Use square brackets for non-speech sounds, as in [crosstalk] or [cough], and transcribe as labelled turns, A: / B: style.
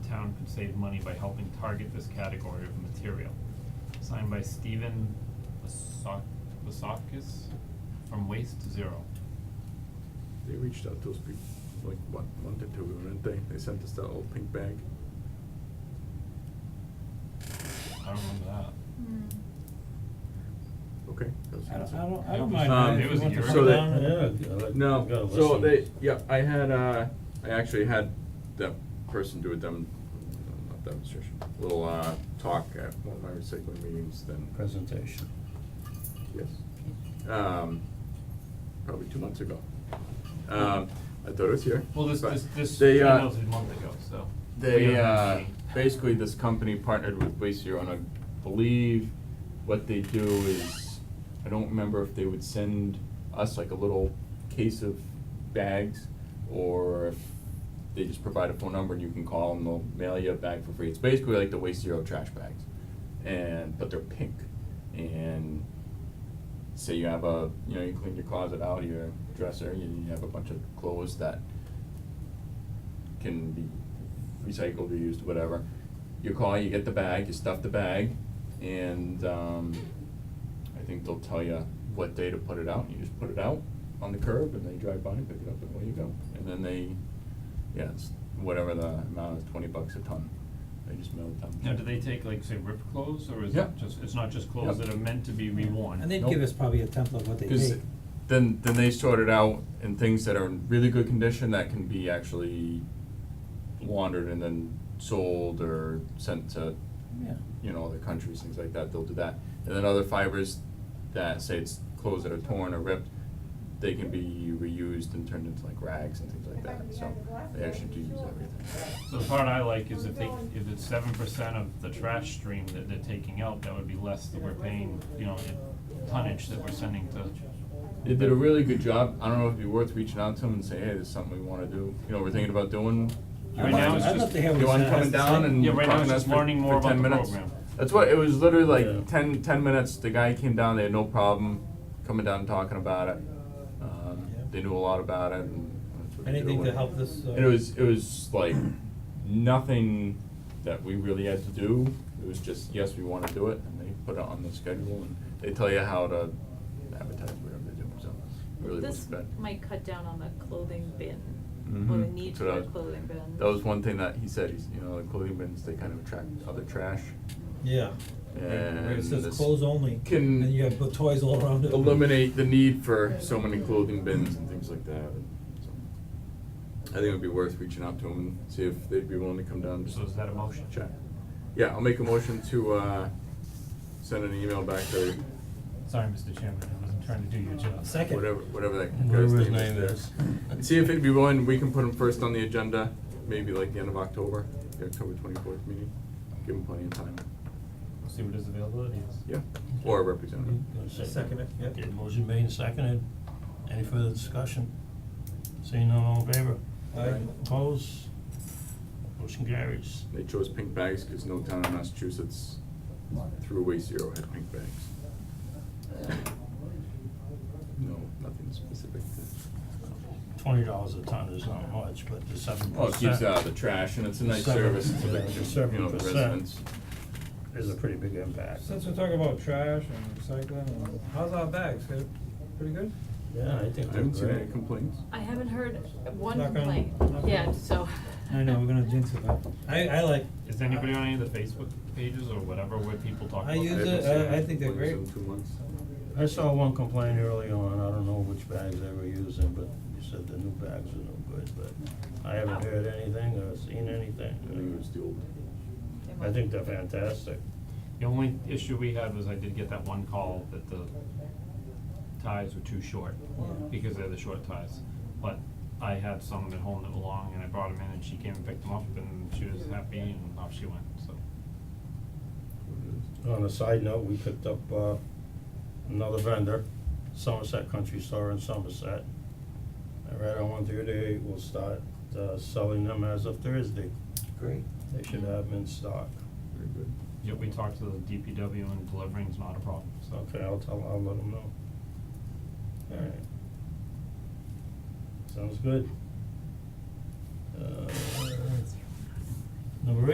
A: save money by helping target this category of material. Signed by Stephen Vasok- Vasakis from Waste to Zero.
B: They reached out to us be, like, what, month or two, ago, didn't they? They sent us that old pink bag.
A: I don't remember that.
C: Hmm.
B: Okay. that was the
D: I don't,
B: answer.
D: I don't, I
A: It
D: don't
A: was-
D: mind
B: Um,
D: that
B: it
D: if you
B: was a
D: want to
A: year
D: come
A: ago.
D: down and-
B: No, so they, yeah, I had, uh, I actually had that person do a dem- not demonstration, little, uh, talk at one of my recycling meetings then.
D: Presentation.
B: Yes. Um, probably two months ago. Um, I thought it was here.
A: Well, this,
B: but
A: this, this
B: they, uh,
A: email was a month ago, so. we
B: They,
A: haven't had a
B: uh,
A: meeting.
B: basically, this company partnered with Waste Zero, and I believe what they do is, I don't remember if they would send us like a little case of bags, or if they just provide a phone number and you can call and they'll mail you a bag for free. It's basically like the Waste Zero trash bags, and, but they're pink, and say you have a, you know, you clean your closet out, your dresser, you, you have a bunch of clothes that can be recycled, reused, whatever. You call, you get the bag, you stuff the bag, and, um, I think they'll tell you what day to put it out, you just put it out on the curb, and they drive by and pick it up, and away you go. And then they, yeah, it's whatever the amount is, twenty bucks a ton, they just mail it down.
A: Now, do they take like, say, ripped clothes, or is
B: Yeah.
A: it just, it's not just clothes
B: Yeah.
A: that are meant to be reworn?
D: And they'd
B: Nope.
D: give us probably a template of what they
B: Cause
D: take.
B: then, then they sort it out in things that are in really good condition that can be actually laundered and then sold or sent to,
D: Yeah.
B: you know, other countries, things like that, they'll do that. And then other fibers that say it's clothes that are torn or ripped, they can be reused and turned into like rags and things like that, so they actually do use everything.
A: So the part I like is if they, if it's seven percent of the trash stream that they're taking out, that would be less that we're paying, you know, in tonnage that we're sending to.
B: They did a really good job, I don't know if it'd be worth reaching out to them and say, hey, this is something we wanna do, you know, we're thinking about doing.
A: Right I'd now love- it's I'd just- love to
D: hear what
B: You
D: he
B: want
D: has
B: coming
D: to
B: down
D: say.
B: and
A: Yeah, right now
B: talking
A: it's
B: to us
A: just
B: for-
A: learning more
B: for
A: about
B: 10
A: the
B: minutes?
A: program.
B: That's what, it was literally
D: Yeah.
B: like 10, 10 minutes, the guy came down, they had no problem coming down and talking about it. Um,
D: Yeah.
B: They knew a lot about it and. that's what they did
D: Anything
B: with
D: to
B: it.
D: help this, uh,
B: And it was, it was like, nothing that we really had to do, it was just, yes, we wanna do it, and they put it on the schedule, and they tell you how to advertise whatever they do, so it really
C: This
B: wasn't bad.
C: might cut down on the clothing bin, or the
B: Mhm.
C: need
B: That's
C: for
B: what I
C: a
B: was-
C: clothing bin.
B: That was one thing that he said, he's, you know, the clothing bins, they kind of attract other trash.
D: Yeah.
B: And
D: Where it says
B: this
D: clothes only,
B: can
D: and you have bu- toys all around it.
B: Eliminate the need for so many clothing bins and things like that, and so. I think it would be worth reaching out to them and see if they'd be willing to come down and just
A: So is that a motion?
B: chat. Yeah, I'll make a motion to, uh, send an email back to
A: Sorry, Mr. Chairman, I wasn't trying to do your job.
D: Second.
B: whatever, whatever that
D: Whatever
B: guy's
D: his
B: name
D: name
B: is
D: is.
B: there. And See if he'd be willing, we can put him first on the agenda, maybe like the end of October, the October twenty-fourth meeting, give him plenty of time,
A: See what his availability is.
B: yeah, or a representative.
D: Second it, yeah.
E: Okay, motion made and seconded. Any further discussion? Seeing none, all in favor?
D: Aye.
E: Opposed? Motion carries.
B: They chose pink bags because no town in Massachusetts threw away zero had pink bags. No, nothing specific to.
E: Twenty dollars a ton is not much, but the seven percent.
B: Well, Oh, it keeps out the trash and it's a nice
E: Seven-
B: service to
E: yeah, the
B: the,
E: seven
B: you know, the
E: percent
B: residents.
E: Is a pretty big impact.
F: Since we're talking about trash and recycling, and how's our bags? Good? Pretty good?
E: Yeah, I
B: I
E: think they're
B: haven't seen any
E: great.
B: complaints.
C: I haven't heard one
F: Knock on-
C: complaint
F: knock on-
C: yet, so.
D: I know, we're gonna jinx it, but
C: [laughs]
D: I, I like.
A: Is anybody on any of the Facebook pages or whatever where people talk
D: I
A: about
D: use
B: haven't
D: it,
B: seen
D: I-
B: any
D: I think they're
B: complaints
D: great.
B: in two months.
E: I saw one complaint early on, I don't know which bags they were using, but you said the new bags are no good, but I haven't heard anything or seen anything.
B: I think it was the old.
C: they
E: I
C: might-
E: think they're fantastic.
A: The only issue we had was I did get that one call that the ties were too short, because they're the short ties. But I had some at home that were long, and I brought them in, and she came and picked them up, and she was happy, and off she went, so.
E: On a side note, we picked up uh another vendor, Somerset Country Store in Somerset. I read on one through they will start uh selling them as of Thursday.
D: Great.
E: They should have them in stock.
B: Very good.
A: Yeah, we talked to the DPW, and delivering's not a problem, so.
E: Okay, I'll tell, I'll let them know. Alright. Sounds good. Uh, number eight.